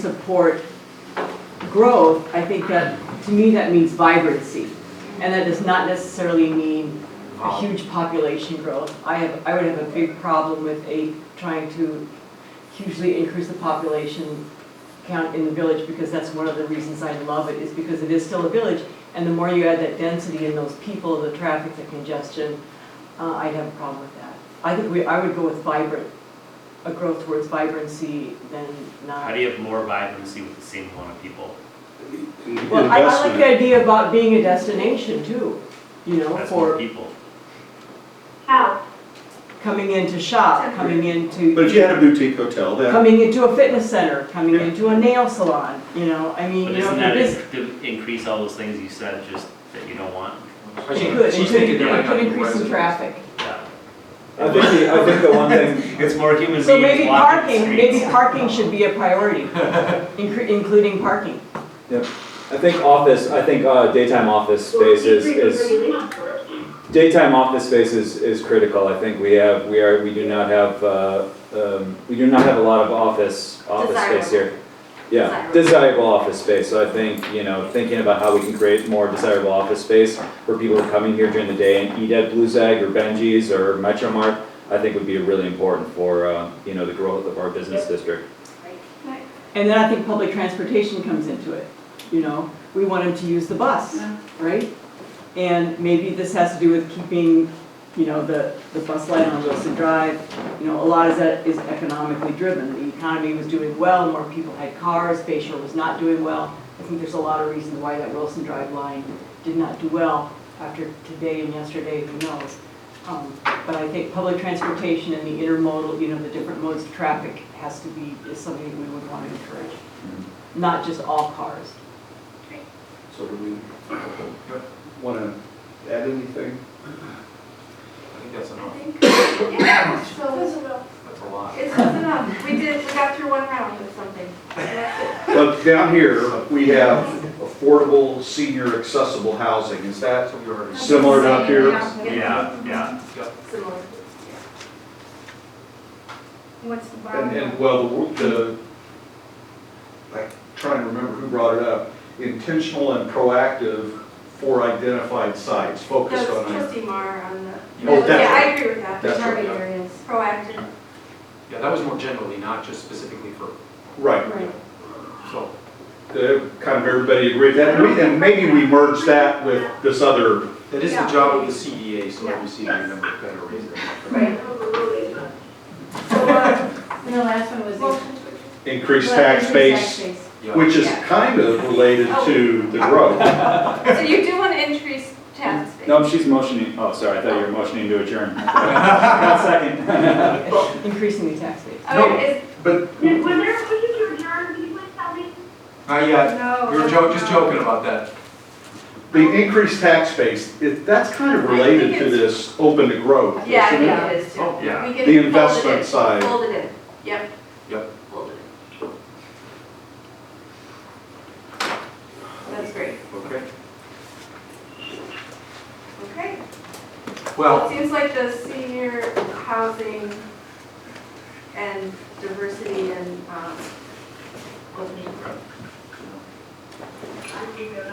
support growth, I think that, to me, that means vibrancy. And that does not necessarily mean a huge population growth. I have, I would have a big problem with a, trying to hugely increase the population count in the village, because that's one of the reasons I love it, is because it is still a village. And the more you add that density and those people, the traffic, the congestion, uh, I'd have a problem with that. I think we, I would go with vibrant, a growth towards vibrancy than not. How do you have more vibrancy with the same amount of people? Well, I, I like the Investment, idea about being a destination too, you know, That's more for people. How? coming in to shop, coming but into, if you had a boutique hotel, then coming into a fitness center, coming Yeah. into a nail salon, you know, I mean, But you know, isn't for that this, in- to increase all those things you said, just that you don't want? it could, it She's could, thinking they're it like could on increase the residents. traffic. Yeah. I think, the- I think the one thing, It's more human beings So maybe walking parking, the maybe streets. parking should be a priority, incre- including parking. I think office, I think uh, daytime office space is, is, daytime office space is, is critical. I think we have, we are, we do not have, uh, um, we do not have a lot of office, office space here. Yeah, desirable office space. So I think, you know, thinking about how we can create more desirable office space for people who are coming here during the day and eat at Blue Zag or Benji's or Metro Mart, I think would be really important for, uh, you know, the growth of our business district. And then I think public transportation comes into it, you know, we want them to use the bus, right? And maybe this has to do with keeping, you know, the, the bus line on Wilson Drive, you know, a lot of that is economically driven. The economy was doing well, more people had cars, Bayshore was not doing well. I think there's a lot of reasons why that Wilson Drive line did not do well after today and yesterday, who knows? Um, But I think public transportation and the intermodal, you know, the different modes of traffic has to be, is something that we would want to encourage. Not just all cars. So do we wanna add anything? I think that's I enough. think, yeah, so, That's a lot. it's close enough. We did, we got through one round with something. That's But down here, we have affordable, senior accessible housing, is that That's what we already. it. Similar to up here? Yeah, yeah. Similar. What's the And, and, well, bottom? the, the- I try and remember who brought it up, intentional and proactive for identified sites, That's focused on. trustee Mar E on the. Oh, Yeah, I definitely. agree with that. The That's right, target yeah. areas, proactive. Yeah, that was more generally, not just specifically for, Right, so, The- kind of everybody agreed that, and we- and maybe we merged that with this other, that is the job of the CDA, so every CDA member better raise their. Right. So, uh, And the last one was. the- motion to adjourn. increased Well, tax increased base. space. Yeah. Which is Yeah. kind of related to the growth. So you do want to increase tax base? No, she's motioning, oh, sorry, I thought you were motioning to adjourn. Not second. Increasing the tax base. Okay, But When when they're pushing to adjourn, can you please tell me? Uh, is, yeah, no. we were joking, just joking about that. the increased tax base, it- that's kind of related to this open to growth. Yeah, I isn't it? think it is too. Oh, yeah. We can The fold it in. investment side. Fold it in, yep. Yep. Fold it in. That's great, Okay. okay. Well, Well, it seems like the senior housing and diversity and, um, what was it?